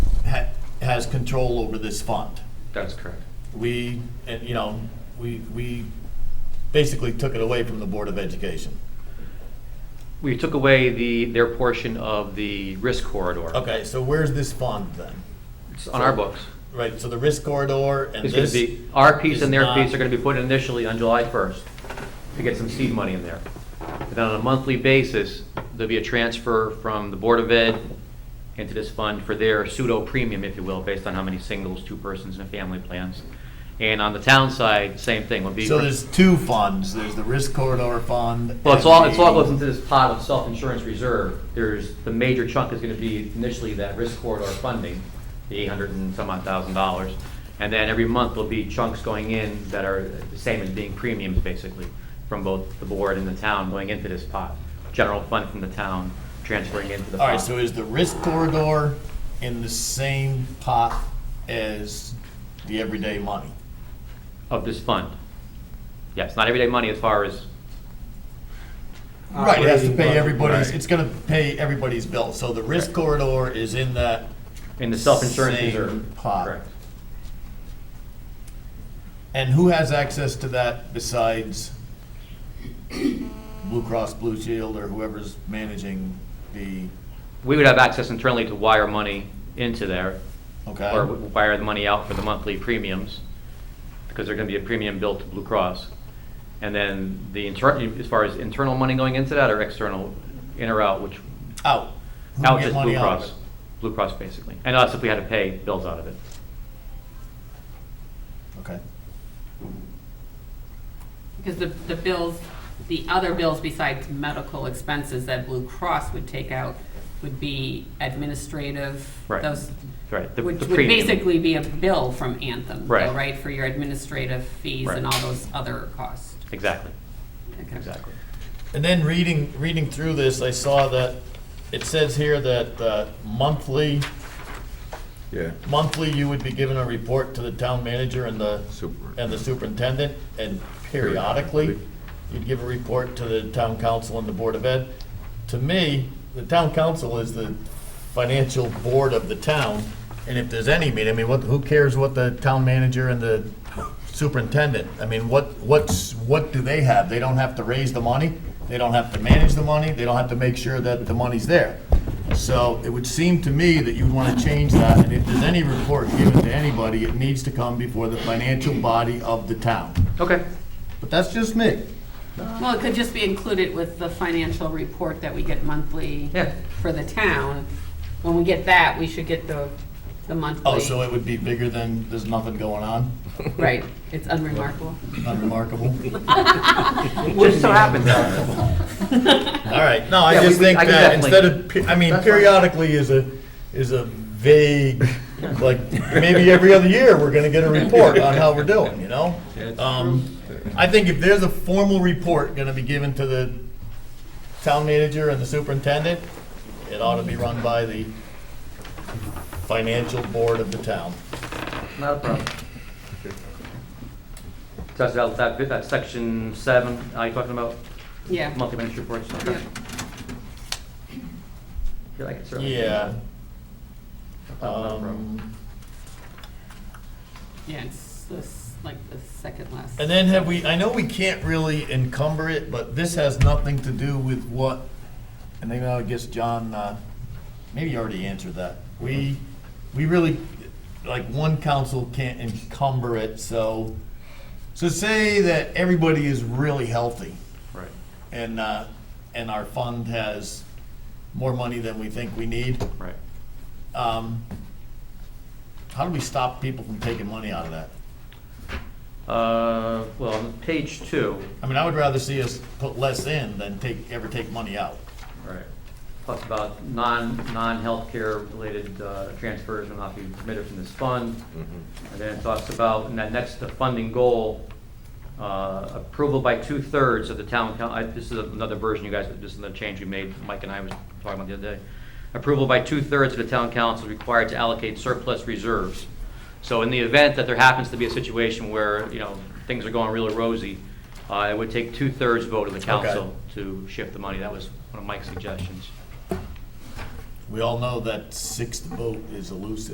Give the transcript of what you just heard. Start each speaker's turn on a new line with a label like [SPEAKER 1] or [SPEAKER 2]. [SPEAKER 1] has control over this fund.
[SPEAKER 2] That's correct.
[SPEAKER 1] We, and, you know, we, we basically took it away from the Board of Education.
[SPEAKER 2] We took away the, their portion of the risk corridor.
[SPEAKER 1] Okay, so where's this fund then?
[SPEAKER 2] It's on our books.
[SPEAKER 1] Right, so the risk corridor and
[SPEAKER 2] It's gonna
[SPEAKER 1] this.
[SPEAKER 2] be, our piece
[SPEAKER 1] is
[SPEAKER 2] and their
[SPEAKER 1] not-
[SPEAKER 2] piece are gonna be put in initially on July first to get some seed money in there. And then on a monthly basis, there'll be a transfer from the Board of Ed into this fund for their pseudo premium, if you will, based on how many singles, two persons and family plans. And on the town side, same thing, will be.
[SPEAKER 1] So there's two funds, there's the risk corridor fund.
[SPEAKER 2] Well, it's
[SPEAKER 1] and
[SPEAKER 2] all, it's all
[SPEAKER 1] the-
[SPEAKER 2] goes into this pot of self-insurance reserve. There's, the major chunk is gonna be initially that risk corridor funding, the eight hundred and some odd thousand dollars. And then every month there'll be chunks going in that are the same as being premiums, basically, from both the board and the town going into this pot. General fund from the town transferring into the pot.
[SPEAKER 1] All right, so is the risk corridor in the same pot as the everyday money?
[SPEAKER 2] Of this fund. Yes, not everyday money as far as,
[SPEAKER 1] Right, it has to
[SPEAKER 3] Operating
[SPEAKER 1] pay
[SPEAKER 3] budget.
[SPEAKER 1] everybody's,
[SPEAKER 2] Right.
[SPEAKER 1] it's gonna pay everybody's bill, so the risk
[SPEAKER 2] Right.
[SPEAKER 1] corridor is in that,
[SPEAKER 2] in the self-insurance
[SPEAKER 1] Same
[SPEAKER 2] reserve.
[SPEAKER 1] pot.
[SPEAKER 2] Correct.
[SPEAKER 1] and who has access to that besides Blue Cross Blue Shield or whoever's managing the,
[SPEAKER 2] We would have access internally to wire money into there,
[SPEAKER 1] okay?
[SPEAKER 2] or wire the money out for the monthly premiums, because they're gonna be a premium billed to Blue Cross. And then the internal, as far as internal money going into that or external, in or out, which,
[SPEAKER 1] Out. Who
[SPEAKER 2] out
[SPEAKER 1] get
[SPEAKER 2] just
[SPEAKER 1] money
[SPEAKER 2] Blue
[SPEAKER 1] out of
[SPEAKER 2] Cross. Blue Cross, basically, and us if we had to pay bills out of it.
[SPEAKER 1] it? Okay,
[SPEAKER 4] Because the, the bills, the other bills besides medical expenses that Blue Cross would take out would be administrative.
[SPEAKER 2] Right.
[SPEAKER 4] Those,
[SPEAKER 2] Right, the
[SPEAKER 4] which
[SPEAKER 2] the
[SPEAKER 4] would
[SPEAKER 2] premium.
[SPEAKER 4] basically be a bill from Anthem, though,
[SPEAKER 2] Right.
[SPEAKER 4] right? For your administrative fees and
[SPEAKER 2] Right.
[SPEAKER 4] all those other costs.
[SPEAKER 2] Exactly,
[SPEAKER 4] Okay.
[SPEAKER 2] exactly.
[SPEAKER 1] and then reading, reading through this, I saw that, it says here that uh, monthly,
[SPEAKER 3] Yeah,
[SPEAKER 1] monthly you would be given a report to the town manager and the
[SPEAKER 3] super.
[SPEAKER 1] and the superintendent, and periodically, you'd give a report to the town council and the Board of Ed. To me, the town council is the financial board of the town, and if there's any meeting, I mean, what, who cares what the town manager and the superintendent? I mean, what, what's, what do they have? They don't have to raise the money, they don't have to manage the money, they don't have to make sure that the money's there. So it would seem to me that you'd want to change that, and if there's any report given to anybody, it needs to come before the financial body of the town.
[SPEAKER 2] Okay,
[SPEAKER 1] But that's just me.
[SPEAKER 4] Well, it could just be included with the financial report that we get monthly
[SPEAKER 2] Yeah.
[SPEAKER 4] for the town. When we get that, we should get the, the monthly.
[SPEAKER 1] Oh, so it would be bigger than, there's nothing going on,
[SPEAKER 4] Right, it's unremarkable.
[SPEAKER 1] unremarkable?
[SPEAKER 2] just so happens, that-
[SPEAKER 1] All right, no, I
[SPEAKER 2] Yeah, we-
[SPEAKER 1] just
[SPEAKER 2] we-
[SPEAKER 1] think
[SPEAKER 2] I can
[SPEAKER 1] that
[SPEAKER 2] definitely-
[SPEAKER 1] instead of, pe- I mean,
[SPEAKER 2] That's fine.
[SPEAKER 1] periodically is a, is a vague, like, maybe every other year, we're gonna get a report on how we're doing, you know? Um, I think if there's a formal report gonna be given to the town manager and the superintendent, it ought to be run by the financial board of the town.
[SPEAKER 2] not a problem. So that's, that, that, that section seven, are you talking about
[SPEAKER 4] Yeah.
[SPEAKER 2] monthly managed reports? Okay.
[SPEAKER 4] Yeah.
[SPEAKER 2] If you like it, certainly.
[SPEAKER 1] Yeah.
[SPEAKER 2] Not a problem.
[SPEAKER 1] Um,
[SPEAKER 4] Yeah, it's this, like the second last.
[SPEAKER 1] And then have we, I know we can't really encumber it, but this has nothing to do with what, and maybe I guess John, uh, maybe you already answered that. We, we really, like, one council can't encumber it, so, so say that everybody is really healthy
[SPEAKER 2] Right.
[SPEAKER 1] and, uh, and our fund has more money than we think we need.
[SPEAKER 2] Right.
[SPEAKER 1] um, How do we stop people from taking money out of that?
[SPEAKER 2] Uh, well, on page two,
[SPEAKER 1] I mean, I would rather see us put less in than take, ever take money out.
[SPEAKER 2] right, talks about non, non-healthcare related, uh, transfers will not be permitted from this fund. And then it talks about, in that next funding goal, uh, approval by two-thirds of the town, coun- I, this is another version, you guys, this is another change we made, Mike and I was talking about the other day. Approval by two-thirds of the town council is required to allocate surplus reserves. So in the event that there happens to be a situation where, you know, things are going really rosy, uh, it would take two-thirds vote of the council to shift the money. That was one of Mike's suggestions.
[SPEAKER 1] We all know that sixth vote is elusive.